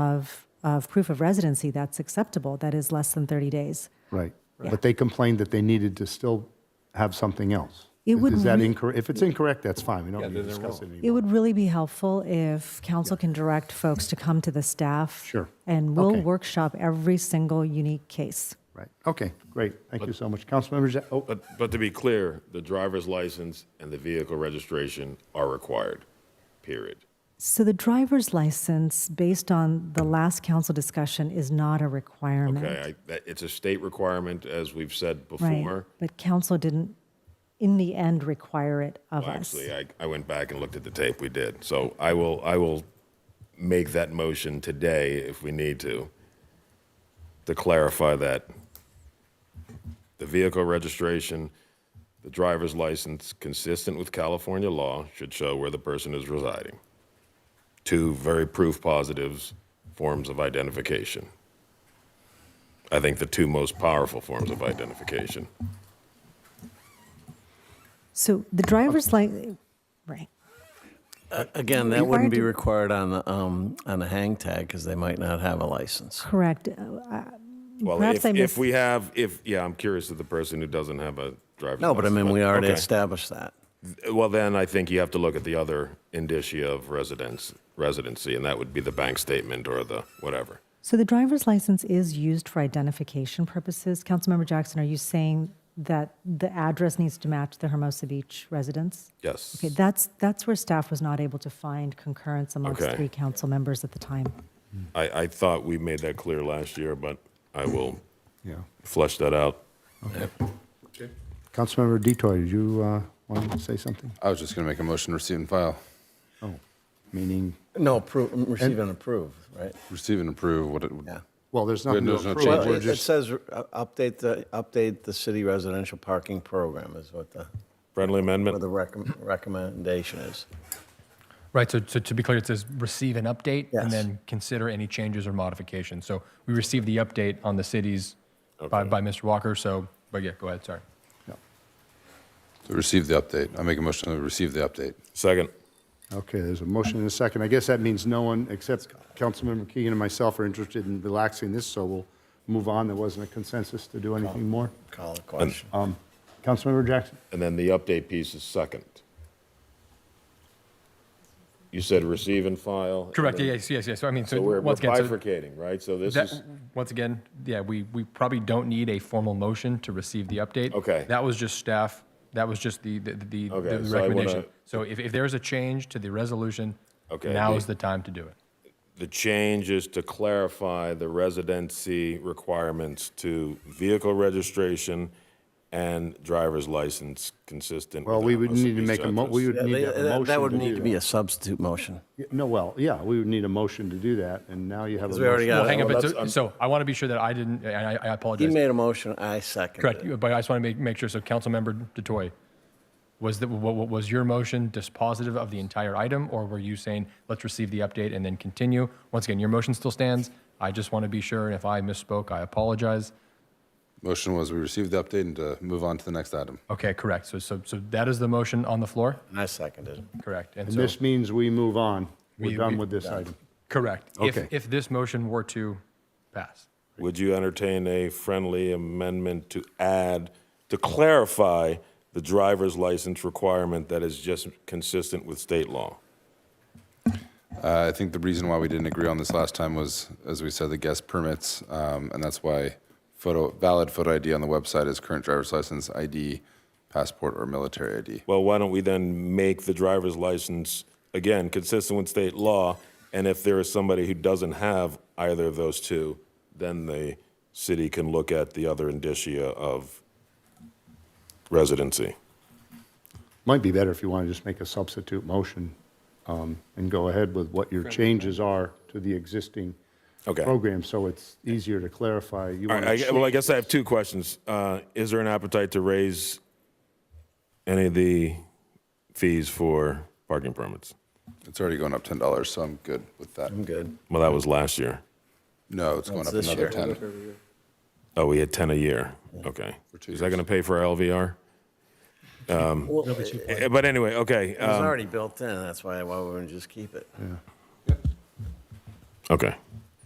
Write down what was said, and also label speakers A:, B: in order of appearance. A: of, of proof of residency that's acceptable, that is less than 30 days.
B: Right. But they complained that they needed to still have something else.
A: It would
B: Is that
A: re-
B: incorrect? If it's incorrect, that's fine. We don't
C: Yeah,
B: need to
C: then they're
B: discuss it
C: wrong.
A: It
B: anymore.
A: would really be helpful if council can direct folks to come to the staff.
B: Sure.
A: And we'll
B: Okay.
A: workshop every single unique case.
B: Right. Okay, great. Thank you so much. Councilmember, Ja- oh,
C: But, but to be clear, the driver's license and the vehicle registration are required, period.
A: So the driver's license, based on the last council discussion, is not a requirement.
C: Okay, I, that, it's a state requirement, as we've said
A: Right,
C: before.
A: but council didn't, in the end, require it of
C: Well,
A: us.
C: Actually, I, I went back and looked at the tape, we did. So I will, I will make that motion today if we need to, to clarify that. The vehicle registration, the driver's license, consistent with California law, should show where the person is residing. Two very proof positives, forms of identification. I think the two most powerful forms of identification.
A: So the driver's license, right.
D: Again, that wouldn't be required on the, um, on a hang tag because they might not have a license.
A: Correct. Uh, I-
C: Well,
A: Perhaps
C: if,
A: I
C: if
A: missed-
C: we have, if, yeah, I'm curious of the person who doesn't have a driver's
D: No, but I mean, we already
C: okay.
D: established that.
C: uh, Well, then I think you have to look at the other indicia of residence, residency, and that would be the bank statement or the whatever.
A: So the driver's license is used for identification purposes. Councilmember Jackson, are you saying that the address needs to match the Hermosa Beach residence?
C: Yes.
A: Okay, that's, that's where staff was not able to find concurrence amongst
C: Okay.
A: three council members at the time.
C: I, I thought we made that clear last year, but I will
B: yeah.
C: flesh that out.
B: Councilmember Detoy, did you uh, want to say something?
E: I was just going to make a motion, to receive and file,
B: Oh, meaning,
D: No, approve, receive and approve, right?
E: receive and approve what it,
D: Yeah.
B: well, there's nothing to
E: There's no
B: approve.
E: change.
D: Well,
B: We're
D: it- it
B: just-
D: says, uh, update the, update the city residential parking program is what the,
C: Friendly
D: what the
C: amendment?
D: recom- recommendation is.
F: Right, so, so to be clear, it says receive an update
D: Yes.
F: and then consider any changes or modifications. So we received the update on the cities by, by Mr. Walker, so, but yeah, go ahead, sorry.
E: to receive the update. I make a motion to receive the update.
C: Second.
B: Okay, there's a motion and a second. I guess that means no one except Councilmember Keegan and myself are interested in relaxing this, so we'll move on. There wasn't a consensus to do anything more.
D: Call the question.
B: Um, Councilmember Jackson?
C: And then the update piece is second. You said receive and file. and
F: Correct,
C: then-
F: yes, yes, yes. So I mean, so
C: So we're we're
F: once again, so
C: bifurcating, right? So this is.
F: that, once again, yeah, we, we probably don't need a formal motion to receive the update.
C: Okay.
F: That was just staff, that was just the, the, the the
C: Okay, so I wanna-
F: recommendation. So if, if there's a change to the resolution,
C: Okay,
F: now
C: the-
F: is the time to do it.
C: The change is to clarify the residency requirements to vehicle registration and driver's license consistent.
B: Well,
C: with
B: we would
C: Alamosa
B: need to
C: Beach
B: make a, mo-
C: address.
B: we would
D: Yeah,
B: need
D: they-
B: to have a
D: That
B: motion
D: that would
B: do
D: need to be
B: that.
D: a substitute motion.
B: Yeah, No, well, yeah, we would need a motion to do that, and now you have a
D: Because we already
B: motion.
D: got-
F: Well, hang on,
C: well,
F: but
C: that's-
F: so,
C: I'm-
F: so I want to be sure that I didn't, and I, I
D: He
F: apologize.
D: made a motion, I seconded it.
F: Correct, but I just want to make, make sure, so Councilmember Detoy, was that, wa- wa- was your motion dispositive of the entire item, or were you saying, let's receive the update and then continue? Once again, your motion still stands. I just want to be sure, and if I misspoke, I apologize.
E: Motion was we receive the update and to move on to the next item.
F: Okay, correct, so, so, so that is the motion on the floor?
D: And I seconded it.
F: Correct, and
B: And
F: so,
B: this means we move on. We're
F: We-
B: done
F: we-
B: with this item.
F: correct. If,
B: Okay.
F: if this motion were to pass.
C: Would you entertain a friendly amendment to add, to clarify the driver's license requirement that is just consistent with state law?
E: Uh, I think the reason why we didn't agree on this last time was, as we said, the guest permits, um, and that's why photo, valid photo ID on the website is current driver's license, ID, passport, or military ID.
C: Well, why don't we then make the driver's license, again, consistent with state law? And if there is somebody who doesn't have either of those two, then the city can look at the other indicia of residency.
B: Might be better if you want to just make a substitute motion um, and go ahead with what your changes are to the existing
C: Okay.
B: program, so it's easier to clarify. You
C: All
B: want
C: right,
B: to
C: I, well, I guess I have two questions. Uh, is there an appetite to raise any of the fees for parking permits?
E: It's already going up $10, so I'm good with that.
D: I'm good.
C: Well, that was last year.
E: No, it's going up
D: this
E: another
D: year.
E: 10.
C: Oh, we had 10 a year. Okay.
E: two
C: Is that going to pay for our LVR?
D: Well, it it
C: Eh, But anyway, okay.
D: was
C: um,
D: already built in, that's why, why wouldn't we just keep it?
C: Okay.